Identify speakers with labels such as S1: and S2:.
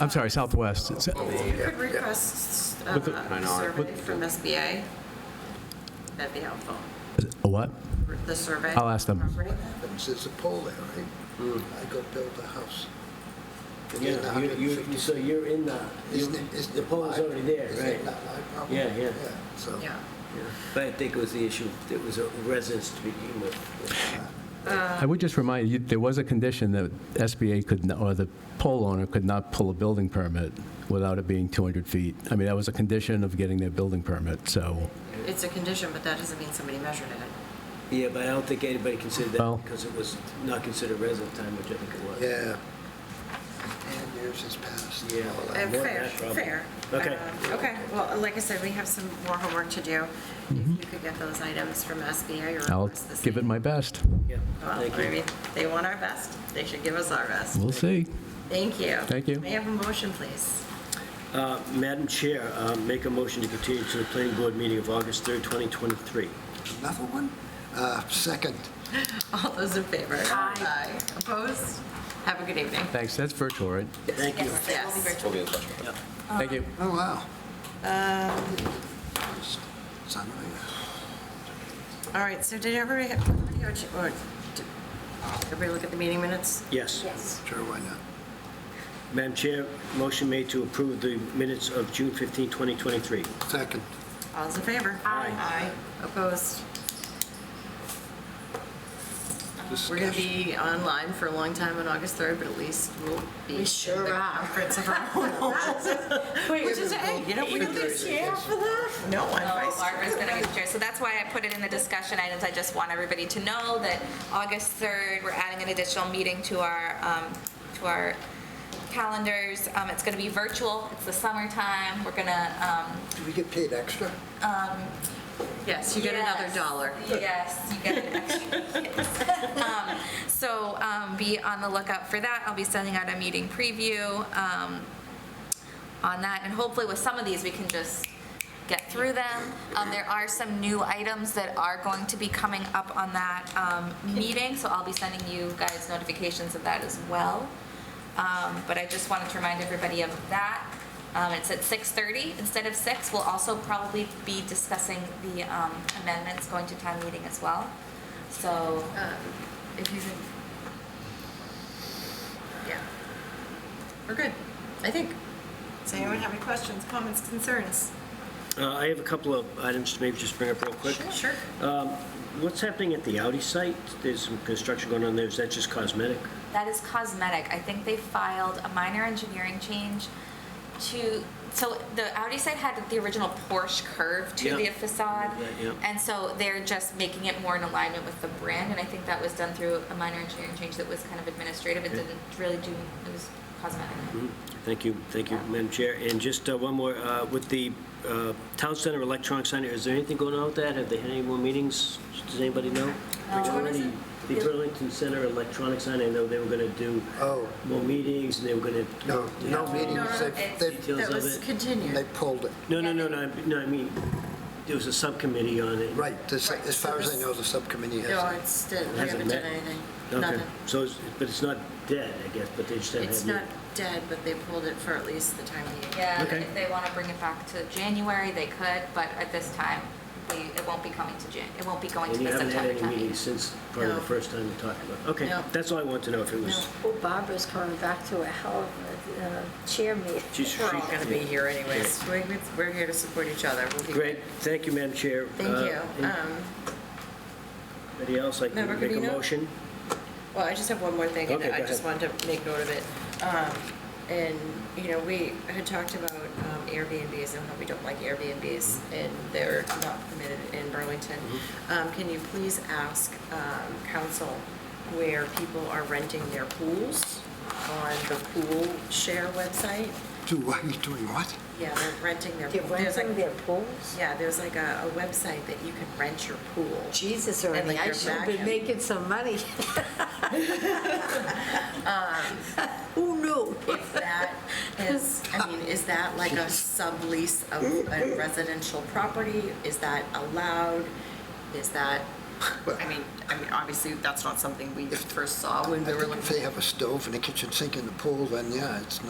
S1: I'm sorry, Southwest. It's-
S2: You could request uh, a survey from SBA. That'd be helpful,
S1: A what?
S2: the survey.
S1: I'll ask them.
S2: Property.
S3: happens, there's a pole there, right? I go build a house. And then the
S4: Hmm. Yeah, you- you, you,
S3: 150
S4: so you're in the,
S3: Isn't it-
S4: you-
S3: isn't
S4: the
S3: it
S4: pole is
S3: my-
S4: already there,
S3: isn't
S4: right?
S3: it not my problem?
S4: Yeah, yeah.
S3: so.
S2: Yeah.
S4: But I think it was the issue, it was a residence to begin with.
S1: I would just remind you, there was a condition that SBA could, n- or the pole owner could not pull a building permit without it being 200 feet. I mean, that was a condition of getting their building permit, so,
S2: It's a condition, but that doesn't mean somebody measured it.
S4: Yeah, but I don't think anybody considered
S1: Well-
S4: that because it was not considered resident time, which I think it was.
S3: Yeah. And years has passed.
S4: Yeah.
S3: all that.
S2: Uh,
S4: more
S2: Fair,
S4: than that,
S2: fair.
S4: Okay.
S2: Um, Okay, well, like I said, we have some more homework to do. If you could get those items from SBA or
S1: Mm-hmm. I'll
S2: request the
S1: give it
S2: same.
S1: my best.
S4: Yeah,
S2: Well,
S4: thank
S2: I
S4: you.
S2: mean, they want our best. They should give us our best.
S1: We'll see.
S2: Thank you.
S1: Thank you.
S2: May I have a motion, please?
S4: Uh, Madam Chair, uh, make a motion to continue to the planning board meeting of August 3rd, 2023.
S3: Another one? Uh, Second.
S2: All those in favor? Aye. Opposed? Have a good evening.
S1: Thanks, that's virtual, right?
S4: Thank you.
S2: Yes. Uh,
S1: Thank you.
S3: Oh, wow. Um. Sunrise.
S2: All right, so did everybody, have- everybody go ch- or did everybody look at the meeting minutes?
S4: Yes.
S3: Sure, why not?
S4: Madam Chair, motion made to approve the minutes of June 15, 2023.
S3: Second.
S2: All's in favor? Aye. Aye. Opposed? We're going to
S3: Discussion.
S2: be online for a long time on August 3rd, but at least we'll be.
S5: We
S2: in
S5: sure
S2: the
S5: are.
S2: Comforts of our own homes. Which is, hey, you know, we don't get chair for that. No, I'm
S5: No,
S2: vice
S5: Oh, Barbara's going to be the chair. So that's why I put it in the discussion items. I just want everybody to know that August 3rd, we're adding an additional meeting to our, um, to our calendars. Um, It's going to be virtual. It's the summertime. We're um, going to,
S3: Do we get paid extra?
S2: Yes, you get another
S5: Yes.
S2: dollar.
S5: Yes, you get an extra kiss. Um, So um, be on the lookout for that. I'll be sending out a meeting preview um, on that, and hopefully with some of these, we can just get through them. Um, There are some new items that are going to be coming up on that um, meeting, so I'll be sending you guys notifications of that as well. Um, But I just wanted to remind everybody of that. Um, It's at 6:30 instead of 6 We'll also probably be discussing the um, amendments going to town meeting as well. So,
S2: Um, If you can. Yeah. We're good, I think. Does anyone have any questions, comments, concerns?
S4: Uh, I have a couple of items to maybe just bring up real quick.
S2: Sure.
S4: What's happening at the Audi site? There's some construction going on there. Is that just cosmetic?
S5: That is cosmetic. I think they filed a minor engineering change to, so the Audi site had the original Porsche curve to
S4: Yeah.
S5: the facade.
S4: Right, yeah.
S5: And so they're just making it more in alignment with the brand, and I think that was done through a minor engineering change that was kind of administrative. It
S4: Okay. Mm-hmm.
S5: didn't really do, it was cosmetic.
S4: Thank you, thank you, Madam Chair. And just uh, one more, uh, with the uh, Town Center Electronic Center, is there anything going on with that? Have they had any more meetings? Does anybody know? Which
S5: one is it?
S4: The Burlington Center Electronic Center, I know they were going to do
S3: Oh.
S4: more meetings, and they were going to...
S3: No, no meetings. They- They,
S4: Details
S2: That
S4: of
S2: was
S4: it?
S3: they
S2: continued.
S3: pulled it.
S4: No, no, no, no, I- no, I mean, there was a subcommittee on it.
S3: Right, this-
S2: Right,
S3: as
S2: so
S3: far as I
S2: this-
S3: know, the subcommittee
S2: No,
S3: has.
S2: it's, we haven't
S4: Hasn't
S2: done
S4: met.
S2: anything,
S4: Okay,
S2: nothing.
S4: so, it's- but it's not dead, I guess, but they just haven't...
S2: It's
S4: had
S2: not
S4: meetings.
S2: dead, but they pulled it for at least the time being.
S5: Yeah,
S4: Okay.
S5: if they want to bring it back to January, they could, but at this time, they, it won't be coming to Jan, it won't be going to
S4: And you
S5: the
S4: haven't had
S5: September
S4: any
S5: town meeting.
S4: meetings since probably
S2: No.
S4: the first time we talked about it. Okay,
S2: No.
S4: that's all I want to know, if it was...
S6: Well, Barbara's coming back to a hell of a uh, chair meeting.
S4: She's-
S2: We're all
S4: she-
S2: going to be here anyways. We- we- We're here to support each other. We'll be-
S4: Great, thank you, Madam Chair.
S2: Thank
S4: Uh,
S2: you. Um,
S4: Anybody else like to
S2: Member
S4: make a
S2: Covino?
S4: motion?
S2: Well, I just have one more thing, and
S4: Okay, go
S2: I just
S4: ahead.
S2: wanted to make note of it. Um, And, you know, we had talked about um, Airbnbs and how we don't like Airbnbs,
S4: Mm-hmm.
S2: and they're not permitted in Burlington. Um, Can you please ask um, council where people are renting their pools on the pool share website?
S3: Do, what are you doing what?
S2: Yeah, they're renting their.
S6: They're
S2: pool. There's like-
S6: renting their pools?
S2: Yeah, there's like a a website that you can rent your pool.
S6: Jesus,
S2: And,
S6: Ernie,
S2: like,
S6: I
S2: your
S6: should have been
S2: back end.
S6: making some money.
S2: Um,
S6: Who knew?
S2: If that is, I mean, is that like a sublease of a residential property? Is that allowed? Is that, I mean, I mean, obviously, that's not something we first saw when
S3: I
S2: we were
S3: think
S2: looking.
S3: if they have a stove and a kitchen sink in the pool, then yeah, it's